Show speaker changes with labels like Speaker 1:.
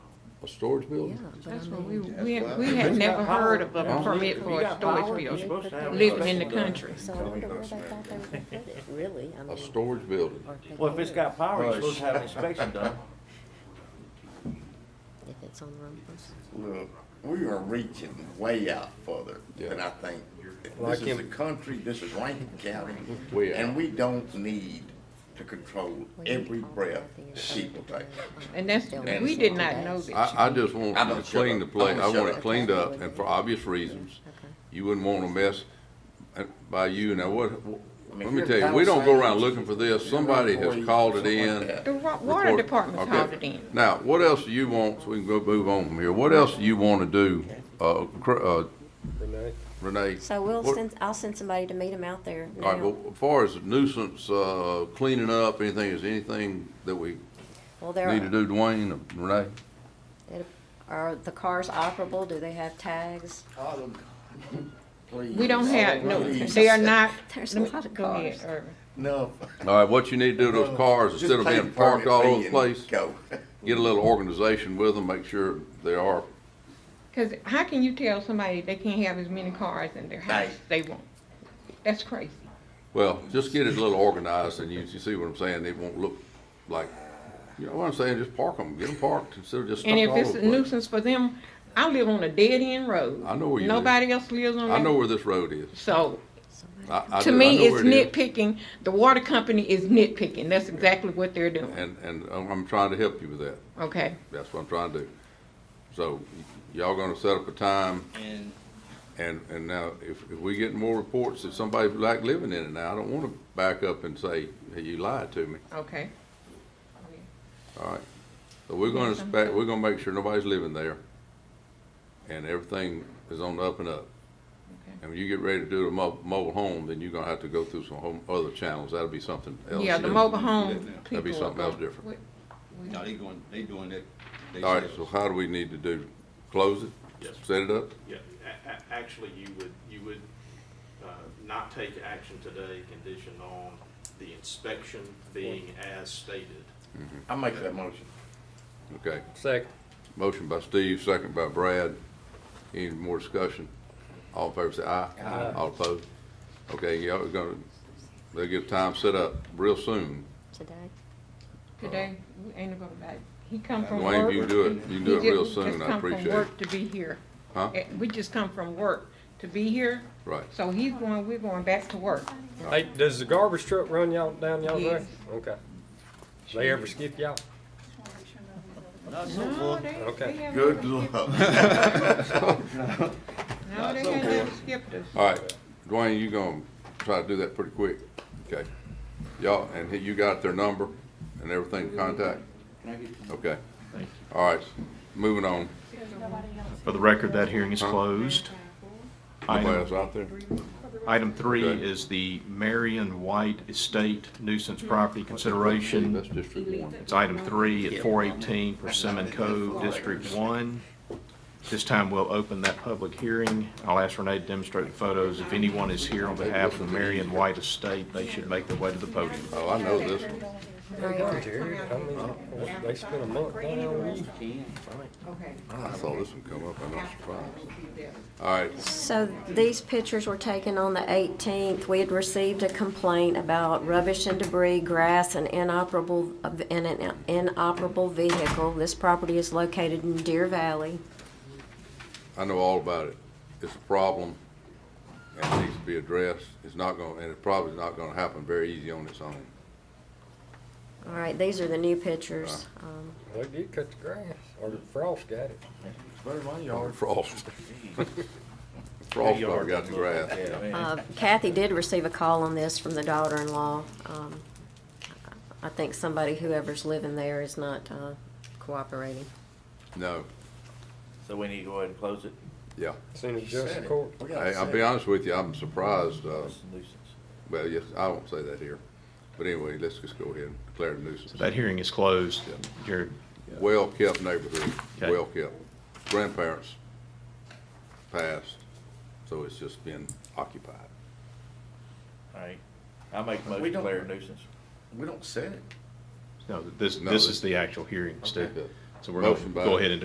Speaker 1: A storage
Speaker 2: Yeah,
Speaker 1: building?
Speaker 2: but I
Speaker 3: That's what we,
Speaker 2: mean,
Speaker 3: we,
Speaker 4: That's
Speaker 3: had-
Speaker 4: why-
Speaker 3: we
Speaker 4: If
Speaker 3: had
Speaker 4: you
Speaker 3: never
Speaker 4: got power,
Speaker 3: heard of a
Speaker 1: yeah.
Speaker 3: permit
Speaker 2: If
Speaker 3: for
Speaker 4: you
Speaker 3: a
Speaker 4: got
Speaker 3: storage
Speaker 4: power,
Speaker 2: you
Speaker 4: You're
Speaker 3: building,
Speaker 4: supposed to have a
Speaker 3: living in the
Speaker 4: special-
Speaker 3: country.
Speaker 2: so I wonder where they thought they were gonna put it, really, I mean.
Speaker 1: A storage building.
Speaker 2: or if they
Speaker 4: Well, if it's
Speaker 2: did,
Speaker 4: got power, you're supposed to have an inspection done.
Speaker 2: If it's on Rumpus.
Speaker 5: Look, we are reaching way out further than I think.
Speaker 6: Like
Speaker 5: This is a
Speaker 6: in-
Speaker 5: country, this is Rankin County,
Speaker 1: Way
Speaker 5: and
Speaker 1: out.
Speaker 5: we don't need to control every breath people take.
Speaker 3: And that's,
Speaker 5: And-
Speaker 3: we did not know that.
Speaker 1: I, I just want
Speaker 5: I'm
Speaker 1: to
Speaker 5: gonna shut
Speaker 1: clean the
Speaker 5: up.
Speaker 1: place,
Speaker 5: I'm
Speaker 1: I
Speaker 5: gonna
Speaker 1: want
Speaker 5: shut
Speaker 1: it
Speaker 5: up.
Speaker 1: cleaned up, and for obvious reasons, you wouldn't want to mess uh, by you. Now, what,
Speaker 5: I mean,
Speaker 1: let me
Speaker 5: if
Speaker 1: tell
Speaker 5: you're
Speaker 1: you, we don't go around
Speaker 5: Palisades,
Speaker 1: looking for this,
Speaker 5: you're
Speaker 1: somebody
Speaker 5: employee,
Speaker 1: has called it
Speaker 5: something like
Speaker 1: in.
Speaker 5: that.
Speaker 3: The wa- water
Speaker 1: Report-
Speaker 3: department
Speaker 1: okay.
Speaker 3: called it in.
Speaker 1: Now, what else do you want, so we can go move on from here, what else do you want to do, uh, cr- uh,
Speaker 6: Renee?
Speaker 1: Renee?
Speaker 2: So we'll
Speaker 1: What-
Speaker 2: send, I'll send somebody to meet them out there
Speaker 1: All right,
Speaker 2: now.
Speaker 1: well, as far as nuisance, uh, cleaning up, anything, is anything that we
Speaker 2: Well, there
Speaker 1: need to
Speaker 2: are,
Speaker 1: do, Dwayne, or Renee?
Speaker 2: are the cars operable, do they have tags?
Speaker 5: Autumn, please.
Speaker 3: We don't have, no,
Speaker 5: Please.
Speaker 3: they are not.
Speaker 2: There's a
Speaker 3: let me-
Speaker 2: lot of
Speaker 3: go ahead,
Speaker 2: cars.
Speaker 3: Irvin.
Speaker 5: No.
Speaker 1: All right, what you need to do to those cars,
Speaker 5: Just
Speaker 1: instead of
Speaker 5: pay
Speaker 1: being
Speaker 5: the
Speaker 1: parked all
Speaker 5: permit
Speaker 1: over the
Speaker 5: fee and
Speaker 1: place,
Speaker 5: Go.
Speaker 1: get a little organization with them, make sure they are,
Speaker 3: Cause how can you tell somebody they can't have as many cars in their house?
Speaker 5: Right.
Speaker 3: They won't. That's crazy.
Speaker 1: well, just get it a little organized and you, you see what I'm saying, it won't look like, you know what I'm saying, just park them, get them parked instead of just stuck
Speaker 3: And
Speaker 1: all
Speaker 3: if it's
Speaker 1: over
Speaker 3: a
Speaker 1: the place.
Speaker 3: nuisance for them, I live on a dead end road.
Speaker 1: I know where you live.
Speaker 3: Nobody else lives on that.
Speaker 1: I know where this road is.
Speaker 3: So,
Speaker 1: I- I do.
Speaker 3: to
Speaker 1: I know
Speaker 3: me, it's
Speaker 1: where it is.
Speaker 3: nitpicking. The water company is nitpicking. That's exactly what they're doing,
Speaker 1: And, and I'm I'm trying to help you with that.
Speaker 3: okay?
Speaker 1: That's what I'm trying to do. So y- y'all gonna set up a time
Speaker 7: And
Speaker 1: and, and now if, if we get more reports that somebody like living in it now, I don't wanna back up and say, hey, you lied to me.
Speaker 3: Okay.
Speaker 1: All right, so we're gonna inspect, we're gonna make sure nobody's living there, and everything is on the up and up.
Speaker 3: Okay.
Speaker 1: And when you get ready to do the mo- mobile home, then you're gonna have to go through some home, other channels, that'll be something else.
Speaker 3: Yeah, the
Speaker 1: Yeah.
Speaker 3: mobile home people.
Speaker 1: That'd be
Speaker 3: are
Speaker 1: something else
Speaker 3: gonna-
Speaker 1: different.
Speaker 3: we- we-
Speaker 7: now they going, they doing that. they
Speaker 1: All right, so
Speaker 7: sales.
Speaker 1: how do we need to do, close it?
Speaker 8: Yes.
Speaker 1: Set it up?
Speaker 8: Yeah, a- a- actually, you would, you would, uh, not take action today conditioned on the inspection being as stated.
Speaker 5: I make that motion.
Speaker 1: Okay,
Speaker 6: Second.
Speaker 1: motion by Steve, second by Brad, any more discussion? All in favor say aye. Aye. All opposed? Okay, y'all are gonna, they'll get time set up real soon.
Speaker 2: Today?
Speaker 3: Today, we ain't gonna buy, he come from work.
Speaker 1: Dwayne, if you do it, you can do
Speaker 3: He
Speaker 1: it
Speaker 3: ju-
Speaker 1: real
Speaker 3: we just
Speaker 1: soon, I
Speaker 3: come from
Speaker 1: appreciate it.
Speaker 3: work To be here.
Speaker 1: Huh?
Speaker 3: Eh, We just come from work to be here,
Speaker 1: Right.
Speaker 3: so he's going, we're going back to work.
Speaker 6: Hey, does the garbage truck run y'all, down y'all's way?
Speaker 3: Yes.
Speaker 6: Okay. They ever skip y'all?
Speaker 7: Not so
Speaker 3: No,
Speaker 7: full.
Speaker 3: they,
Speaker 6: Okay.
Speaker 3: they have.
Speaker 5: Good luck.
Speaker 3: No, they ain't never skipped us.
Speaker 1: All right, Dwayne, you gonna try to do that pretty quick, okay? Y'all, and he- you got their number and everything to contact? Okay. All right, moving on.
Speaker 8: For the record, that hearing is closed.
Speaker 1: Nobody else out there?
Speaker 8: Item three
Speaker 1: Okay.
Speaker 8: is the Marion White Estate nuisance property consideration.
Speaker 1: That's District One.
Speaker 8: It's item three at four eighteen Persimmon Cove, District One. This time we'll open that public hearing. I'll ask Renee to demonstrate the photos. If anyone is here on behalf of the Marion White Estate, they should make their way to the podium.
Speaker 1: Oh, I know this one.
Speaker 6: Jerry, I mean, they spend a month down there with you.
Speaker 3: Okay.
Speaker 1: Ah, I saw this one come up, I'm not surprised.
Speaker 3: We'll be there.
Speaker 1: All right,
Speaker 2: So these pictures were taken on the 18th. We had received a complaint about rubbish and debris, grass, and inoperable, and an inoperable vehicle. This property is located in Deer Valley.
Speaker 1: I know all about it. It's a problem and it needs to be addressed. It's not gonna, and it probably is not gonna happen very easy on its own.
Speaker 2: All right, these are the new pictures. Um,
Speaker 6: They did cut the grass, or the frost got it.
Speaker 5: Very my
Speaker 1: Or
Speaker 5: yard.
Speaker 1: Frost. Frost probably got the grass.
Speaker 2: uh, Kathy did receive a call on this from the daughter-in-law. Um, I think somebody, whoever's living there is not uh, cooperating.
Speaker 1: No,
Speaker 4: So we need to go ahead and close it?
Speaker 1: yeah.
Speaker 6: Seen it just in court.
Speaker 5: We gotta
Speaker 1: Hey, I'll
Speaker 5: say
Speaker 1: be
Speaker 5: it.
Speaker 1: honest with you, I'm surprised, uh,
Speaker 4: It's a nuisance.
Speaker 1: well, yes, I won't say that here. But anyway, let's just go ahead and declare it a nuisance.
Speaker 8: That hearing is closed. Jared,
Speaker 1: Well-kept neighborhood,
Speaker 8: Okay.
Speaker 1: well-kept. Grandparents passed, so it's just been occupied.
Speaker 4: All right. I make a motion
Speaker 5: We
Speaker 4: to
Speaker 5: don't-
Speaker 4: declare a nuisance.
Speaker 5: We don't set it.
Speaker 8: no, this,
Speaker 1: No,
Speaker 8: this
Speaker 1: this-
Speaker 8: is the actual hearing, Steve. So we're
Speaker 1: Motion
Speaker 8: going to
Speaker 1: by-
Speaker 8: go ahead and